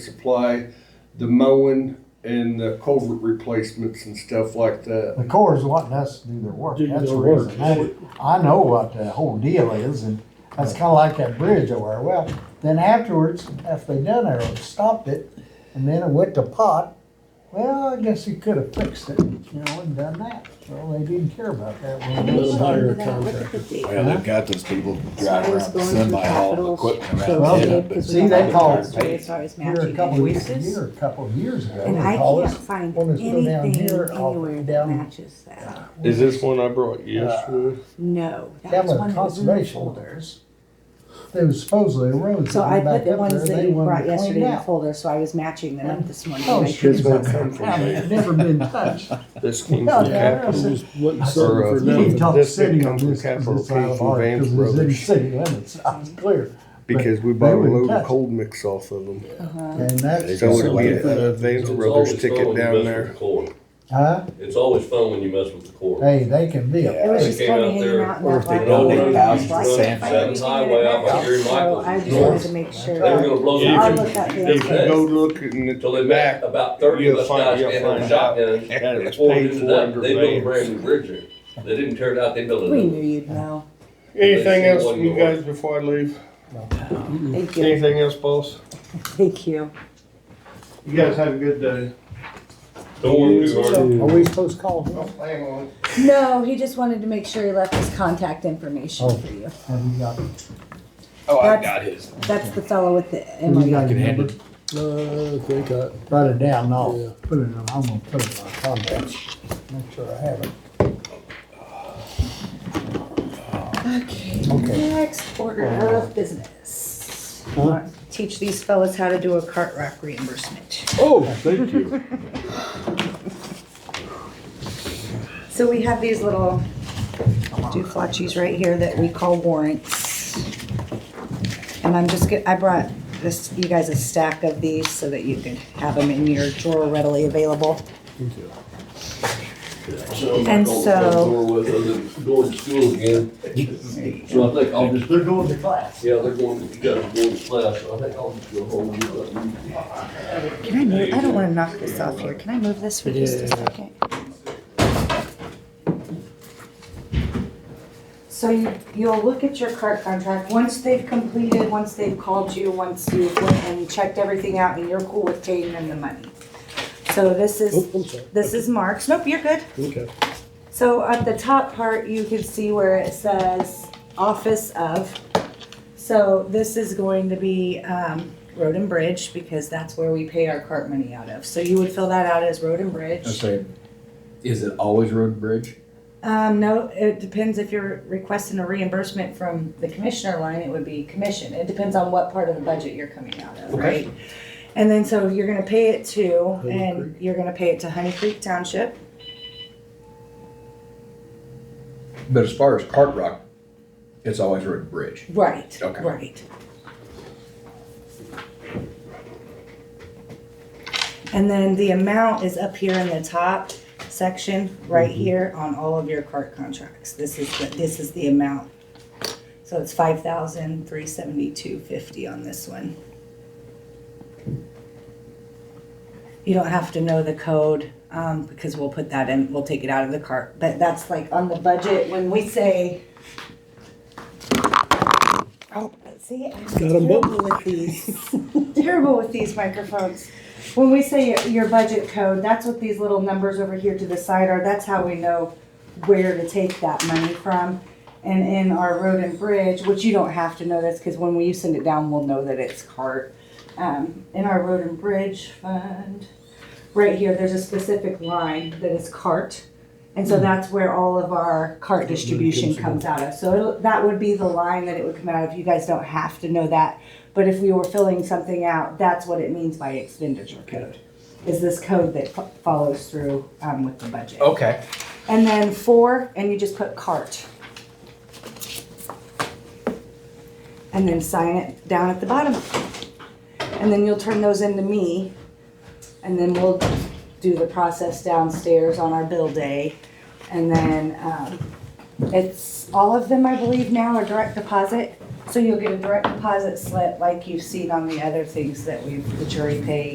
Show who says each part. Speaker 1: supply the mowing and the culvert replacements and stuff like that.
Speaker 2: The Corps is wanting us to do their work,
Speaker 3: Do
Speaker 2: that's the
Speaker 3: their work.
Speaker 2: reason. I I know what the whole deal is, and that's kinda like that bridge over there. Well, then afterwards, after they done it, stopped it, and then it went to pot. Well, I guess you could have fixed it, you know, and done that. Well, they didn't care about that. when they
Speaker 3: Let 'em
Speaker 2: started.
Speaker 3: hire a contractor.
Speaker 4: contractor.
Speaker 5: Well, Oh, they've got those people
Speaker 4: I
Speaker 5: driving
Speaker 4: was
Speaker 5: around,
Speaker 4: going
Speaker 5: semi
Speaker 4: through
Speaker 5: haul
Speaker 4: Capitals.
Speaker 5: equipment
Speaker 2: Well,
Speaker 5: around. the
Speaker 2: yeah,
Speaker 5: end, but-
Speaker 2: see, they call-
Speaker 4: As far as
Speaker 2: Here a
Speaker 4: matching
Speaker 2: couple of weeks,
Speaker 4: invoices.
Speaker 2: here a couple of years ago.
Speaker 4: And
Speaker 2: they
Speaker 4: I
Speaker 2: called
Speaker 4: can't
Speaker 2: us,
Speaker 4: find
Speaker 2: wanted us to go down
Speaker 4: anything
Speaker 2: here, off-
Speaker 4: anywhere that
Speaker 2: down-
Speaker 4: matches that.
Speaker 3: Is this one I brought yesterday?
Speaker 4: No, that
Speaker 2: Down
Speaker 4: was
Speaker 2: by
Speaker 4: one
Speaker 2: the
Speaker 4: that was in the
Speaker 2: conservation.
Speaker 4: folders.
Speaker 2: There was supposedly a road.
Speaker 4: So I
Speaker 2: coming
Speaker 4: put
Speaker 2: back
Speaker 4: the
Speaker 2: up there,
Speaker 4: ones that
Speaker 2: they
Speaker 4: you
Speaker 2: wanted
Speaker 4: brought
Speaker 2: it cleaned
Speaker 4: yesterday in the
Speaker 2: out.
Speaker 4: folder, so I was matching them up this morning.
Speaker 2: Oh,
Speaker 4: and I
Speaker 2: shit.
Speaker 3: This
Speaker 4: couldn't
Speaker 3: one
Speaker 4: find
Speaker 3: come
Speaker 4: them.
Speaker 3: from
Speaker 2: Yeah,
Speaker 3: me.
Speaker 2: It's never been touched.
Speaker 1: Uh,
Speaker 3: This came
Speaker 2: No,
Speaker 3: from
Speaker 2: no,
Speaker 3: Capital.
Speaker 2: no.
Speaker 3: Just wasn't
Speaker 1: Or, uh,
Speaker 3: serving for
Speaker 2: You need to
Speaker 3: nothing.
Speaker 2: talk to
Speaker 1: This thing
Speaker 2: city on
Speaker 1: comes from
Speaker 2: this, because
Speaker 1: Capital
Speaker 2: it's out
Speaker 1: Case
Speaker 2: of
Speaker 1: and
Speaker 2: our,
Speaker 1: Vance
Speaker 2: because it's in
Speaker 1: Brothers.
Speaker 2: city limits, it's clear.
Speaker 1: Because we
Speaker 2: They
Speaker 1: bought a
Speaker 2: wouldn't
Speaker 1: load
Speaker 2: touch
Speaker 1: of
Speaker 2: it.
Speaker 1: cold mix off of them.
Speaker 2: And that's,
Speaker 1: So it'd be
Speaker 3: Something.
Speaker 1: a Vance
Speaker 6: It's
Speaker 1: Brothers
Speaker 6: always fun
Speaker 1: ticket
Speaker 6: when you
Speaker 1: down
Speaker 6: mess
Speaker 1: there.
Speaker 6: with the core.
Speaker 2: huh?
Speaker 6: It's always fun when you mess with the core.
Speaker 2: Hey, they can be
Speaker 4: It
Speaker 2: a,
Speaker 4: was
Speaker 6: They
Speaker 4: just
Speaker 6: came
Speaker 4: kind of
Speaker 6: out
Speaker 4: hanging
Speaker 6: there,
Speaker 4: out in
Speaker 5: or
Speaker 4: that
Speaker 5: if they
Speaker 4: lot.
Speaker 5: donate
Speaker 4: It was
Speaker 5: thousands
Speaker 4: like
Speaker 5: to
Speaker 4: if I
Speaker 5: Sam's
Speaker 4: didn't
Speaker 6: Adams
Speaker 4: do
Speaker 6: Highway
Speaker 4: that,
Speaker 6: out by Gary
Speaker 4: So
Speaker 6: Michaels
Speaker 4: I just
Speaker 6: North.
Speaker 4: wanted to make
Speaker 6: They were
Speaker 4: sure.
Speaker 6: gonna blow
Speaker 1: If-
Speaker 4: I'll
Speaker 6: the
Speaker 4: look up
Speaker 1: If you
Speaker 4: the.
Speaker 1: go look in the
Speaker 6: until they met
Speaker 1: back,
Speaker 6: about thirty of
Speaker 1: You'll
Speaker 6: us
Speaker 1: find-
Speaker 6: guys
Speaker 1: you'll
Speaker 6: standing on
Speaker 1: find
Speaker 6: shotgun.
Speaker 1: that it's
Speaker 6: Before we
Speaker 1: paid
Speaker 6: did
Speaker 1: for
Speaker 6: that,
Speaker 1: under
Speaker 6: they built a
Speaker 1: Vance.
Speaker 6: brand new bridge there. They didn't tear it out, they built
Speaker 4: We
Speaker 6: another.
Speaker 4: knew you'd know.
Speaker 1: Anything else from you guys before I leave?
Speaker 4: Thank you.
Speaker 1: Anything else, boss?
Speaker 4: Thank you.
Speaker 1: You guys have a good day.
Speaker 6: Don't worry, we weren't.
Speaker 2: are we supposed to call him?
Speaker 1: Hang on.
Speaker 4: No, he just wanted to make sure he left his contact information
Speaker 2: Oh.
Speaker 4: for you.
Speaker 2: Have you got,
Speaker 5: Oh, I
Speaker 4: That's-
Speaker 5: got his.
Speaker 4: That's the fellow with the
Speaker 2: you
Speaker 4: MOU.
Speaker 2: got your
Speaker 5: Can hand
Speaker 2: number?
Speaker 5: it.
Speaker 3: Uh, I think I,
Speaker 2: Write it down,
Speaker 3: Yeah.
Speaker 2: no, put it in, I'm gonna put it in my contacts, make sure I have it.
Speaker 4: Okay,
Speaker 2: Okay.
Speaker 4: next order of business. Teach these fellas how to do a cart rack reimbursement.
Speaker 3: oh, thank you.
Speaker 4: So we have these little dooflachis right here that we call warrants. And I'm just, get- I brought this, you guys a stack of these so that you could have them in your drawer readily available. And so-
Speaker 6: Door with us and going to school again. So I think I'll just. They're going to class. Yeah, they're going, you guys are going to class, so I think I'll just go home and let them.
Speaker 4: Can I move, I don't wanna knock this off here, can I move this for just a second? So you, you'll look at your cart contract, once they've completed, once they've called you, once you've went and checked everything out and you're cool with paying them the money. So this
Speaker 3: Oh,
Speaker 4: is,
Speaker 3: I'm sorry.
Speaker 4: this is Mark's, nope, you're good.
Speaker 3: Okay.
Speaker 4: So at the top part, you can see where it says office of. So this is going to be um, road and bridge because that's where we pay our cart money out of. So you would fill that out as road and bridge.
Speaker 5: Okay. Is it always road and bridge?
Speaker 4: Um, no, it depends if you're requesting a reimbursement from the commissioner line, it would be commission. It depends on what part of the budget you're coming out of, right? And then so you're gonna pay it to,
Speaker 3: Honey
Speaker 4: and you're gonna pay it to Honey Creek Township.
Speaker 5: But as far as Cart Rock, it's always road and bridge.
Speaker 4: Right,
Speaker 5: Okay.
Speaker 4: right. And then the amount is up here in the top section, right here on all of your cart contracts. This is, the this is the amount. So it's five thousand three seventy-two fifty on this one. You don't have to know the code, um, because we'll put that in, we'll take it out of the cart, but that's like on the budget, when we say Oh, see, I'm
Speaker 3: them both.
Speaker 4: terrible with these. terrible with these microphones. When we say your, your budget code, that's what these little numbers over here to the side are. That's how we know where to take that money from. And in our road and bridge, which you don't have to know this because when we send it down, we'll know that it's cart. Um, in our road and bridge fund, right here, there's a specific line that is cart. And so that's where all of our cart distribution comes out of. So it'll- that would be the line that it would come out of. You guys don't have to know that. But if we were filling something out, that's what it means by expenditure code. Is this code that fo- follows through um, with the budget.
Speaker 5: Okay.
Speaker 4: And then four, and you just put cart. And then sign it down at the bottom. And then you'll turn those into me. And then we'll do the process downstairs on our bill day. And then, um, it's, all of them, I believe now are direct deposit. So you'll get a direct deposit slip like you've seen on the other things that we've, the jury paid